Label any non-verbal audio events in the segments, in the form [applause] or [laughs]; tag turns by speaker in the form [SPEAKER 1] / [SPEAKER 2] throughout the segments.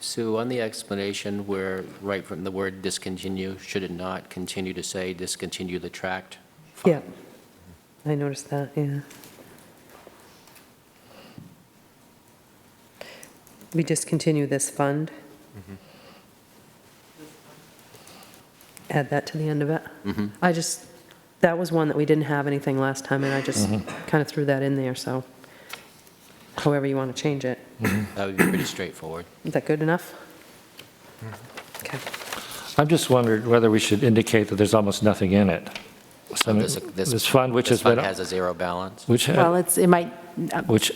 [SPEAKER 1] Sue, on the explanation where, right from the word discontinue, should it not continue to say discontinue the tract?
[SPEAKER 2] Yeah, I noticed that, yeah. We discontinue this fund. Add that to the end of it. I just, that was one that we didn't have anything last time, and I just kind of threw that in there, so however you want to change it.
[SPEAKER 1] That would be pretty straightforward.
[SPEAKER 2] Is that good enough? Okay.
[SPEAKER 3] I'm just wondering whether we should indicate that there's almost nothing in it. So
[SPEAKER 1] This-
[SPEAKER 3] This fund, which
[SPEAKER 1] this
[SPEAKER 3] has been,
[SPEAKER 1] fund has a zero balance.
[SPEAKER 3] which,
[SPEAKER 4] Well, it's, it might,
[SPEAKER 3] which,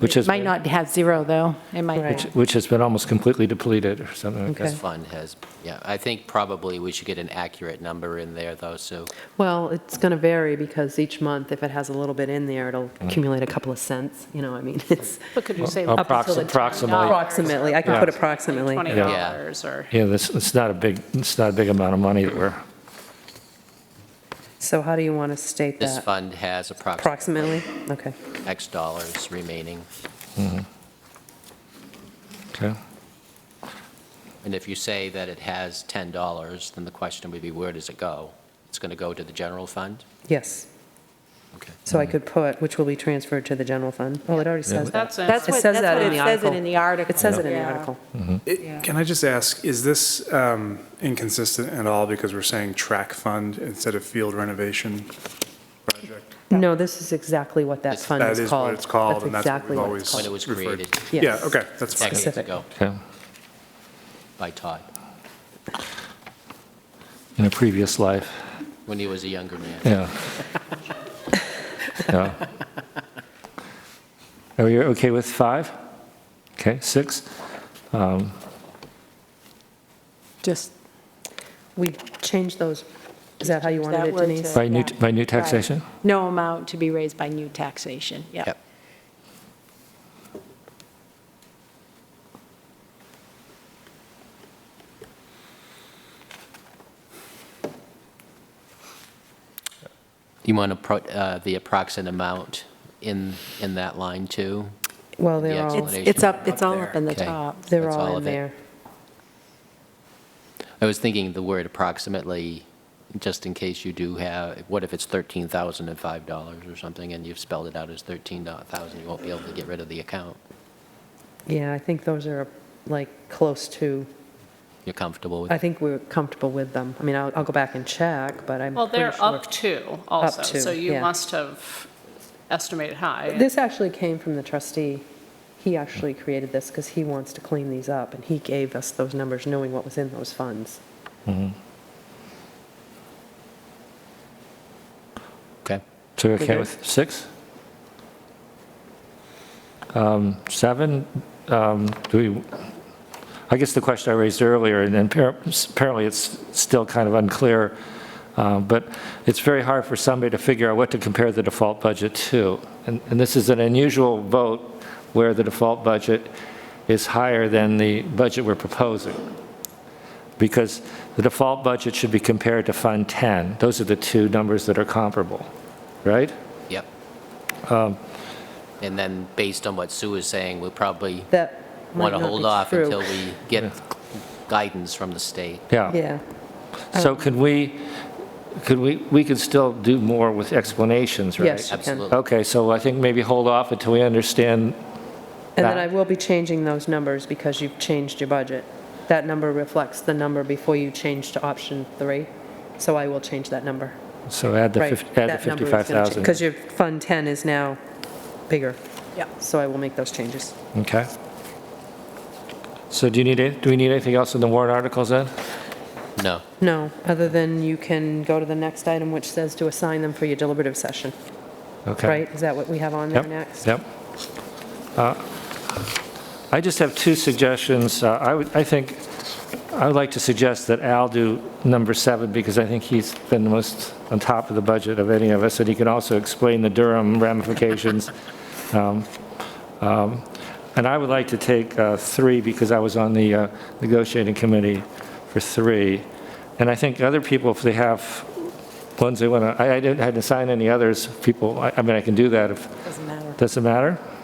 [SPEAKER 3] which
[SPEAKER 4] it
[SPEAKER 3] has,
[SPEAKER 4] might
[SPEAKER 3] been-
[SPEAKER 4] not have zero, though. It might
[SPEAKER 2] Right.
[SPEAKER 4] not.
[SPEAKER 3] which has been almost completely depleted or something like that.
[SPEAKER 1] This
[SPEAKER 2] Okay.
[SPEAKER 1] fund has, yeah, I think probably we should get an accurate number in there, though, Sue.
[SPEAKER 2] Well, it's going to vary because each month, if it has a little bit in there, it'll
[SPEAKER 5] Mm-hmm.
[SPEAKER 2] accumulate a couple of cents, you know, I mean, it's
[SPEAKER 6] But could you say
[SPEAKER 3] Well,
[SPEAKER 6] up until the
[SPEAKER 3] approxi- approximately.
[SPEAKER 6] $10?
[SPEAKER 2] approximately, I can put
[SPEAKER 3] Yeah.
[SPEAKER 2] approximately.
[SPEAKER 6] Twenty
[SPEAKER 3] Yeah.
[SPEAKER 6] dollars or,
[SPEAKER 3] Yeah, this, it's not a big, it's not a big amount of money that we're,
[SPEAKER 2] So how do you want to state
[SPEAKER 1] This
[SPEAKER 2] that?
[SPEAKER 1] fund has approximately
[SPEAKER 2] Approximately, okay.
[SPEAKER 1] X dollars remaining.
[SPEAKER 3] okay?
[SPEAKER 1] And if you say that it has $10, then the question would be, where does it go? It's going to go to the general fund?
[SPEAKER 2] Yes,
[SPEAKER 1] Okay.
[SPEAKER 2] so I could put, which will be transferred to the general fund. Oh, it already says that.
[SPEAKER 6] that's in.
[SPEAKER 4] That's
[SPEAKER 2] It
[SPEAKER 4] what-
[SPEAKER 2] says
[SPEAKER 4] that's
[SPEAKER 2] that
[SPEAKER 4] what
[SPEAKER 2] in the
[SPEAKER 4] it says it
[SPEAKER 2] article.
[SPEAKER 4] in the article.
[SPEAKER 2] It says it in the
[SPEAKER 4] Yeah.
[SPEAKER 2] article.
[SPEAKER 5] It- Can I just ask, is this um, inconsistent at all because we're saying track fund instead of field renovation project?
[SPEAKER 2] No, this is exactly what that fund
[SPEAKER 5] That
[SPEAKER 2] is
[SPEAKER 5] is
[SPEAKER 2] called.
[SPEAKER 5] what it's called, and that's what
[SPEAKER 2] exactly
[SPEAKER 5] we've
[SPEAKER 2] what it's
[SPEAKER 5] always
[SPEAKER 1] When it
[SPEAKER 2] called.
[SPEAKER 1] was
[SPEAKER 5] referred
[SPEAKER 1] created.
[SPEAKER 5] to. Yeah,
[SPEAKER 2] Yes.
[SPEAKER 5] okay, that's fine.
[SPEAKER 1] Decades
[SPEAKER 2] Specific.
[SPEAKER 1] ago
[SPEAKER 3] Okay.
[SPEAKER 1] by Todd,
[SPEAKER 3] In a previous life,
[SPEAKER 1] when he was a younger man.
[SPEAKER 4] [laughs]
[SPEAKER 3] yeah. Yeah. Are you okay with five? Okay, six?
[SPEAKER 4] Just,
[SPEAKER 2] We changed those, is that how you
[SPEAKER 4] that
[SPEAKER 2] wanted it,
[SPEAKER 4] word
[SPEAKER 2] Denise?
[SPEAKER 4] to-
[SPEAKER 3] By new,
[SPEAKER 4] Yeah.
[SPEAKER 3] by new taxation?
[SPEAKER 4] no amount to be raised by new taxation, yeah.
[SPEAKER 1] Yep. You want to put uh, the approximate amount in, in that line, too?
[SPEAKER 2] Well,
[SPEAKER 1] The
[SPEAKER 2] they're all,
[SPEAKER 1] explanation.
[SPEAKER 4] It's it's up, it's all up in the
[SPEAKER 1] Okay.
[SPEAKER 4] top.
[SPEAKER 2] they're
[SPEAKER 1] That's all
[SPEAKER 2] all in
[SPEAKER 1] of it.
[SPEAKER 2] there.
[SPEAKER 1] I was thinking the word approximately, just in case you do have, what if it's $13,005 or something, and you've spelled it out as $13,000, you won't be able to get rid of the account?
[SPEAKER 2] Yeah, I think those are like close to,
[SPEAKER 1] You're comfortable with
[SPEAKER 2] I think we're comfortable with them. I mean, I'll, I'll go back and check, but I'm
[SPEAKER 6] well,
[SPEAKER 2] pretty sure.
[SPEAKER 6] they're up to also.
[SPEAKER 2] to,
[SPEAKER 6] So you
[SPEAKER 2] yeah.
[SPEAKER 6] must have estimated high.
[SPEAKER 2] This actually came from the trustee. He actually created this because he wants to clean these up, and he gave us those numbers knowing what was in those funds.
[SPEAKER 1] Okay.
[SPEAKER 3] So you're okay
[SPEAKER 2] Okay.
[SPEAKER 3] with six? Um, Seven, um, do we, I guess the question I raised earlier, and then appar- apparently it's still kind of unclear, uh, but it's very hard for somebody to figure out what to compare the default budget to. And and this is an unusual vote where the default budget is higher than the budget we're proposing because the default budget should be compared to Fund 10. Those are the two numbers that are comparable, right?
[SPEAKER 1] Yep. And then, based on what Sue is saying, we'll probably
[SPEAKER 2] That
[SPEAKER 1] want
[SPEAKER 2] might not
[SPEAKER 1] to
[SPEAKER 2] be
[SPEAKER 1] hold off
[SPEAKER 2] true.
[SPEAKER 1] until we get guidance from the state.
[SPEAKER 3] Yeah.
[SPEAKER 2] Yeah,
[SPEAKER 3] So could we, could we, we could still do more with explanations, right?
[SPEAKER 2] yes, you can.
[SPEAKER 1] Absolutely.
[SPEAKER 3] Okay, so I think maybe hold off until we understand,
[SPEAKER 2] And then
[SPEAKER 3] That-
[SPEAKER 2] I will be changing those numbers because you've changed your budget. That number reflects the number before you change to option three, so I will change that number.
[SPEAKER 3] so add the fif- add the 55,000.
[SPEAKER 2] Because your Fund 10 is now bigger,
[SPEAKER 4] Yeah.
[SPEAKER 2] so I will make those changes.
[SPEAKER 3] Okay. So do you need, it- do we need anything else in the warrant articles then?
[SPEAKER 1] No.
[SPEAKER 2] No, other than you can go to the next item, which says to assign them for your deliberative session,
[SPEAKER 3] Okay.
[SPEAKER 2] right? Is that what we have on there
[SPEAKER 3] Yep,
[SPEAKER 2] next?
[SPEAKER 3] Yep. Uh, I just have two suggestions. Uh, I would, I think, I would like to suggest that Al do number seven, because I think he's been the most on top of the budget of any of us, and he can also explain the Durham ramifications. [laughs] Um, um, And I would like to take uh, three, because I was on the uh, negotiating committee for three. And I think other people, if they have ones they want to, I I didn't, I hadn't assigned any others, people, I I mean, I can do that if,
[SPEAKER 4] Doesn't matter.
[SPEAKER 3] does it matter?